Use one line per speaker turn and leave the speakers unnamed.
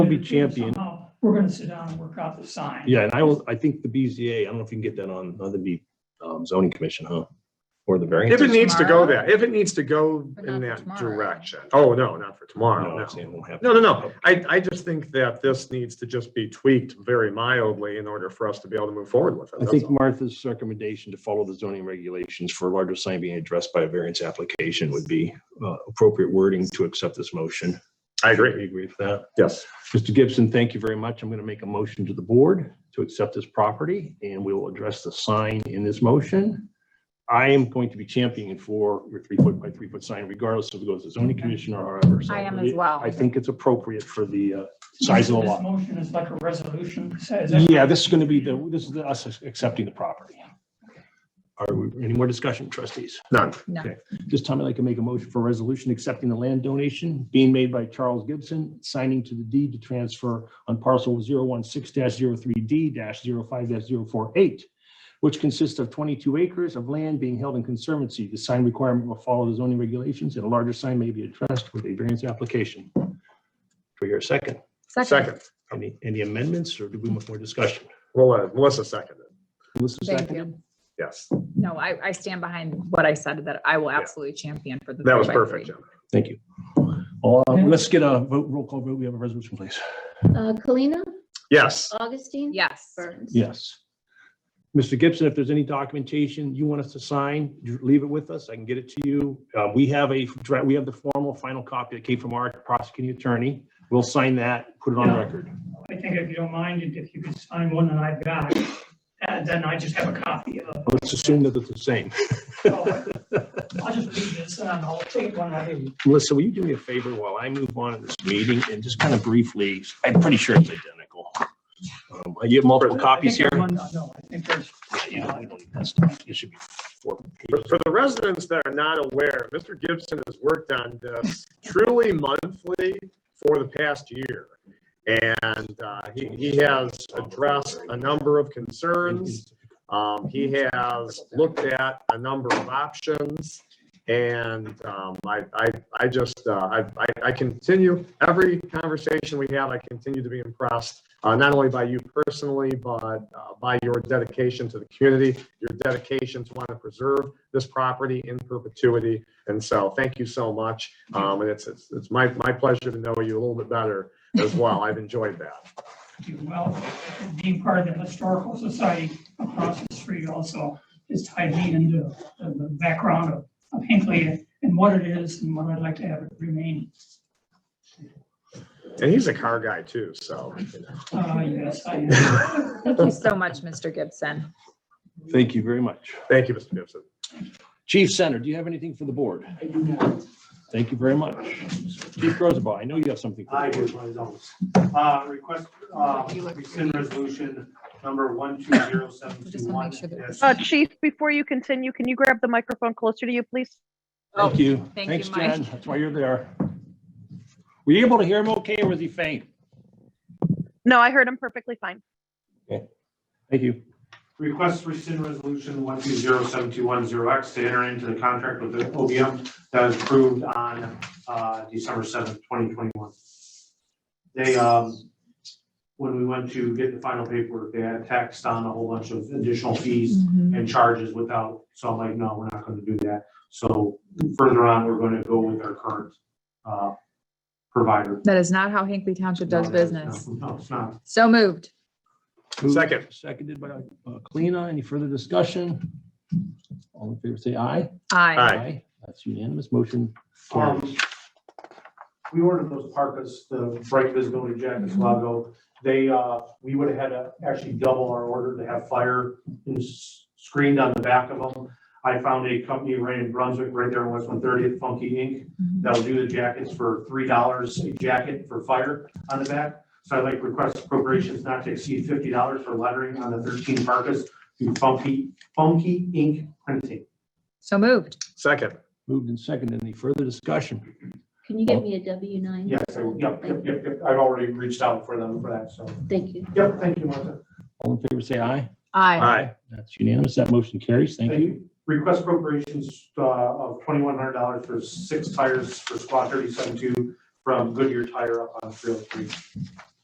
We'll be champion.
Somehow, We're gonna sit down and work out the sign.
Yeah, and I will, I think the BZA, I don't know if you can get that on, on the B- um, zoning commission, huh? Or the variance.
If it needs to go
tomorrow?
there, if it needs to go
But
in
not
that
for tomorrow.
direction. Oh, no, not for tomorrow,
No,
no.
I'm saying it won't happen.
No, no, no. I, I just think that this needs to just be tweaked very mildly in order for us to be able to move forward with it.
I
That's
think
all.
Martha's recommendation to follow the zoning regulations for a larger sign being addressed by a variance application would be uh, appropriate wording to accept this motion.
I
Do
agree,
you agree with that?
yes.
Mr. Gibson, thank you very much. I'm going to make a motion to the board to accept this property, and we will address the sign in this motion. I am going to be championing for your three-foot by three-foot sign regardless if it goes to zoning commission or however. So
I am as well.
I think it's appropriate for the uh, size of the
This
lot.
motion is like a resolution, says.
Yeah, this is going to be the, this is the- us accepting the property. Are we, any more discussion, trustees?
None.
This time I'd like to make a motion for a resolution accepting the land donation being made by Charles Gibson, signing to the deed to transfer on parcel 016-03D-05-048, which consists of 22 acres of land being held in conservancy. The sign requirement will follow the zoning regulations, and a larger sign may be addressed with a variance application. Do we hear a second?
Second,
Any, any amendments, or do we want more discussion?
well, uh, Melissa seconded,
Melissa
Thank
seconded?
yes.
No, I, I stand behind what I said, that I will
Yeah.
absolutely champion for the.
That was
three by
perfect,
three.
Jim.
Thank you. Uh, Let's get a vote- roll call vote. We have a resolution, please.
Uh, Kalina,
Yes,
Augustine?
Yes.
Burns?
Yes. Mr. Gibson, if there's any documentation you want us to sign, you leave it with us. I can get it to you. Uh, We have a, dra- we have the formal final copy that came from our prosecuting attorney. We'll sign that, put it on record.
I think if you don't mind, if you could sign one that I've got, and then I just have a copy of.
Let's assume that it's the same.
I'll just leave this and I'll take one I need.
Melissa, will you do me a favor while I move on in this meeting and just kind of briefly, I'm pretty sure it's identical. Um, You have multiple copies here?
I think there's one- No, I think there's,
Yeah, we don't need that stuff. It should be four
for for the residents that are not aware, Mr. Gibson has worked on this truly monthly for the past year. And uh, he, he has addressed a number of concerns. Um, he has looked at a number of options. And, um, I, I, I just, uh, I, I- I continue, every conversation we have, I continue to be impressed, uh, not only by you personally, but, uh, by your dedication to the community, your dedication to want to preserve this property in perpetuity. And so, thank you so much. Um, and it's, it's, it's my, my pleasure to know you a little bit better as well. I've enjoyed that.
do well, being part of the historical society across the street also is tied me into the the background of of Hinckley and what it is and what I'd like to have it remain.
And he's a car guy too, so, you know.
Uh, yes, I am.
Thank you so much, Mr. Gibson.
Thank you very much.
Thank you, Mr. Gibson.
Chief Center, do you have anything for the board? I do not. Thank you very much. Chief Rosenbaum, I know you have something. for the
I do,
board.
one of those. Uh, request, uh, rescind resolution number one two zero seven two one.
Just wanna make
Uh, Chief, before you continue, can you grab the microphone closer to you, please?
Oh, Thank you.
thank
Thanks,
you, Mike.
Jen. That's why you're there. Were you able to hear him okay or was he faint?
No, I heard him perfectly fine.
Thank you.
Request rescind resolution one two zero seven two one zero X to enter into the contract with the OBM that was approved on, uh, December seventh, twenty twenty-one. They, um, when we went to get the final paperwork, they had taxed on a whole bunch of additional fees and charges without, so I'm like, no, we're not gonna do that. So further on, we're gonna go with our current, uh, provider.
That is not how Hinkley Township does
No, that's-
business.
No, it's not.
So moved.
Moved,
Second.
Seconded by uh, Kalina. Any further discussion? All in favor, say aye.
Aye.
Aye.
That's unanimous. Motion
Um,
carries.
we ordered those parkas, the bright visibility
Mm-hmm.
jackets, logo. They, uh, we would have had to actually double our order to have fire ins- screened on the back of them. I found a company right in Brunswick, right there in West One Thirtieth, Funky Ink,
Mhm.
that'll do the jackets for three dollars a jacket for fire on the back. So I'd like to request appropriations not to exceed fifty dollars for lettering on the thirteen parkas through Funky, Funky Ink Printing.
So moved.
Second,
Moved and seconded. Any further discussion?
Can you get me a W nine?
Yes, I- yep, yep, yep, yep. I've already reached out for them for that, so.
Thank you.
Yep, thank you, Martha.
All in favor, say aye.
Aye.
aye,
That's unanimous. That motion carries. Thank you.
Request appropriations uh, of twenty-one hundred dollars for six tires for squad thirty-seven two from Goodyear Tire up on Trail Creek.